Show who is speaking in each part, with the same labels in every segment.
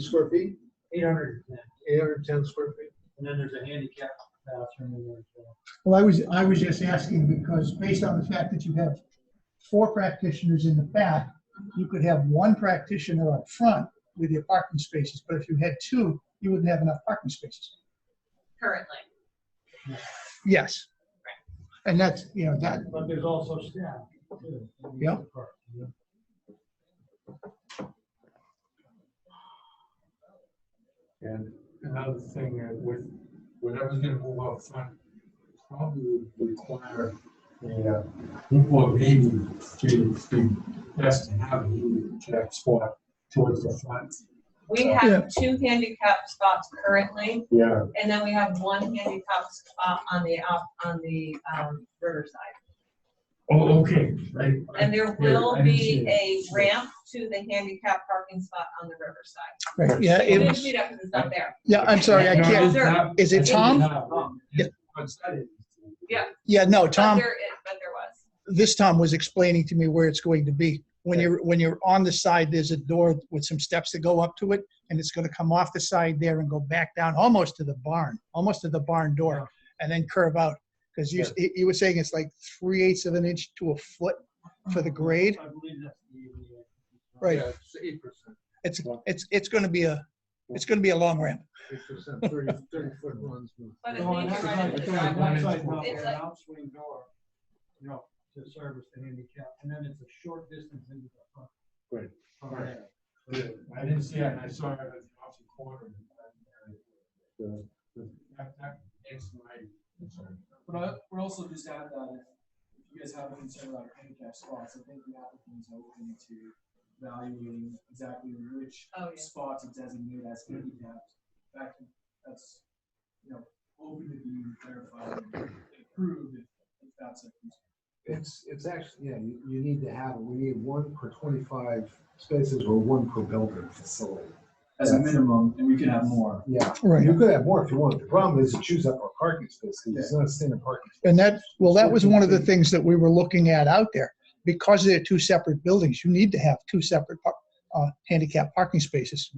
Speaker 1: square feet,
Speaker 2: eight hundred and ten,
Speaker 1: eight hundred and ten square feet.
Speaker 2: and then there's a handicap bathroom in there as well.
Speaker 3: Well, I was, I was just asking because based on the fact that you have four practitioners in the back, you could have one practitioner up front with your parking spaces, but if you had two, you wouldn't have enough parking spaces.
Speaker 4: currently.
Speaker 3: Yes. And that's, you know, that,
Speaker 2: But there's also staff. too, in the
Speaker 3: Yep.
Speaker 2: park, you know.
Speaker 5: And another thing uh, with, whatever's gonna move out front, probably would require a uh, group of maybe to be best to have a handicap spot towards the front.
Speaker 4: We
Speaker 3: Yeah.
Speaker 4: have two handicap spots currently,
Speaker 5: Yeah,
Speaker 4: and then we have one handicap spot on the, op- on the um, riverside.
Speaker 5: oh, okay, right.
Speaker 4: And there
Speaker 5: Yeah,
Speaker 4: will
Speaker 5: I didn't see
Speaker 4: be a
Speaker 5: it.
Speaker 4: ramp to the right parking spot on the riverside.
Speaker 3: right, yeah, it
Speaker 4: You didn't
Speaker 3: was,
Speaker 4: see that because it's not there.
Speaker 3: yeah, I'm sorry, I
Speaker 4: No,
Speaker 3: can't,
Speaker 5: No,
Speaker 3: is it
Speaker 5: it's
Speaker 3: Tom?
Speaker 5: not. It's outside it.
Speaker 4: Yeah.
Speaker 3: yeah, no,
Speaker 4: But
Speaker 3: Tom,
Speaker 4: there is, but there was.
Speaker 3: this Tom was explaining to me where it's going to be. When you're, when you're on the side, there's a door with some steps that go up to it, and it's gonna come off the side there and go back down almost to the barn, almost to the barn door, and then curve out. Because you, he he was saying it's like three eighths of an inch to a foot for the grade.
Speaker 2: I believe that's the ADA.
Speaker 3: Right.
Speaker 1: Yeah, It's eight percent,
Speaker 3: It's, it's, it's gonna be a, it's gonna be a long ramp.
Speaker 1: eight percent, thirty, thirty foot runs.
Speaker 4: But it's
Speaker 2: No, and
Speaker 4: making
Speaker 2: that's
Speaker 4: right
Speaker 2: like-
Speaker 4: at the
Speaker 2: it's like one side
Speaker 4: driveway.
Speaker 2: door,
Speaker 4: It's
Speaker 2: an
Speaker 4: like-
Speaker 2: outswing door, you know, to service the handicap, and then it's a short distance into the front.
Speaker 5: Right.
Speaker 2: Front area.
Speaker 5: Yeah, I didn't see it, and I saw it at the opposite corner. and, uh, That, that is my concern.
Speaker 6: But I would also just add that if if you guys have a concern about handicap spots, I think the applicant's open to evaluating exactly which
Speaker 4: Oh, yeah.
Speaker 6: spot to designate as handicapped. In fact, that's, you know, open to being clarified and approved if if that's a concern.
Speaker 1: It's, it's actually, yeah, you, you need to have, we need one per twenty-five spaces or one per building facility.
Speaker 6: As a minimum, and we could have more.
Speaker 1: Yeah,
Speaker 3: Right.
Speaker 1: you could have more if you want. The problem is it chews up our parking space, 'cause it's not a standard parking. space.
Speaker 3: And that, well, that was one of the things that we were looking at out there. Because they're two separate buildings, you need to have two separate par- uh, handicap parking spaces.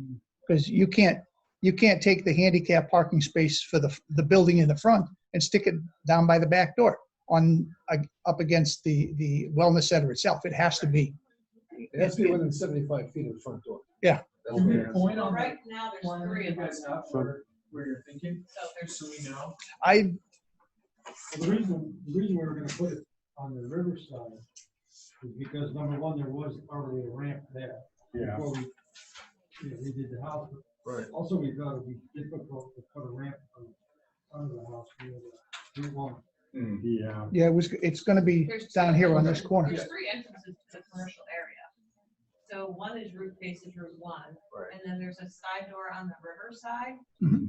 Speaker 3: Because you can't, you can't take the handicap parking space for the, the building in the front and stick it down by the back door on, uh, up against the, the wellness center itself. It has to be.
Speaker 1: It has to be within seventy-five feet of the front door.
Speaker 3: Yeah.
Speaker 1: That's
Speaker 6: Can
Speaker 1: what
Speaker 6: we
Speaker 1: it is.
Speaker 6: point
Speaker 4: Well,
Speaker 6: on
Speaker 4: right
Speaker 6: that
Speaker 4: now, there's
Speaker 6: corner
Speaker 4: three
Speaker 6: you
Speaker 4: of them,
Speaker 6: guys have where, where you're thinking,
Speaker 4: so there's
Speaker 6: so we know?
Speaker 3: I,
Speaker 2: Well, The reason, the reason we were gonna put it on the riverside is because number one, there was already a ramp there.
Speaker 5: Yeah.
Speaker 2: Before we, you know, we did the house,
Speaker 1: Right.
Speaker 2: Also, we thought it'd be difficult to put a ramp on, under the house, we had a, we want.
Speaker 5: Yeah.
Speaker 3: yeah, it was, it's gonna be
Speaker 4: There's
Speaker 3: down
Speaker 4: two
Speaker 3: here on this
Speaker 4: entrances-
Speaker 3: corner.
Speaker 4: There's three entrances to the commercial area. So one is Route faces Route one.
Speaker 1: Right.
Speaker 4: And then there's a side door on the riverside.
Speaker 2: Mm-hmm.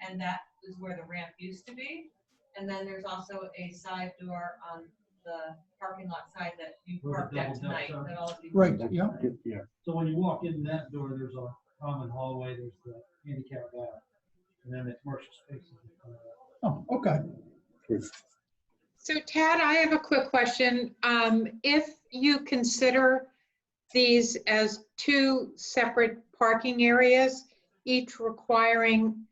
Speaker 4: And that is where the ramp used to be. And then there's also a side door on the parking lot side that you
Speaker 2: Where the
Speaker 4: parked at
Speaker 2: double
Speaker 4: tonight.
Speaker 2: decks are.
Speaker 4: that all of you-
Speaker 3: Right, yeah.
Speaker 5: Yeah.
Speaker 2: So when you walk in that door, there's a common hallway, there's the handicap bath, and then the commercial spaces.
Speaker 3: Oh, okay.
Speaker 7: So Tad, I have a quick question. Um, If you consider these as two separate parking areas, each requiring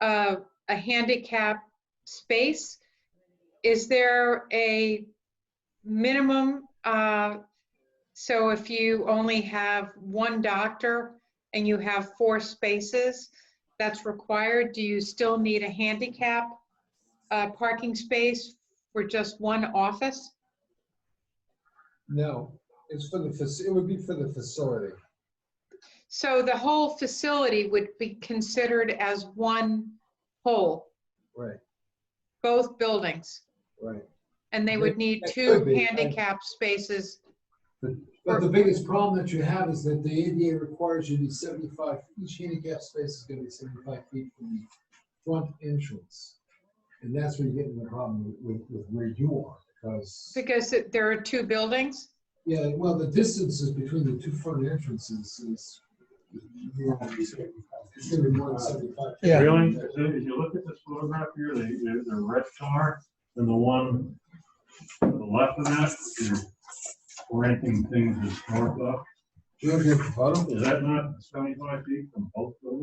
Speaker 7: uh, a handicap space, is there a minimum? uh, So if you only have one doctor and you have four spaces, that's required, do you still need a handicap uh, parking space for just one office?
Speaker 1: No, it's for the, fac- it would be for the facility.
Speaker 7: So the whole facility would be considered as one whole,
Speaker 1: Right,
Speaker 7: both buildings?
Speaker 1: right.
Speaker 7: And they would need
Speaker 1: That
Speaker 7: two
Speaker 1: could be, I-
Speaker 7: handicap spaces?
Speaker 1: But the biggest problem that you have is that the ADA requires you to be seventy-five, each handicap space is gonna be seventy-five feet from the front entrance. And that's where you get into the problem with, with where you are, because,
Speaker 7: Because it- there are two buildings?
Speaker 1: yeah, well, the distances between the two front entrances is. It's gonna be more than seventy-five.
Speaker 3: Yeah.
Speaker 8: Really, if you- if you look at this photograph here, the, the- the red car and the one to the left of that, you're renting things as north up.
Speaker 1: Do you have your photo?
Speaker 8: Is that not seventy-five feet from both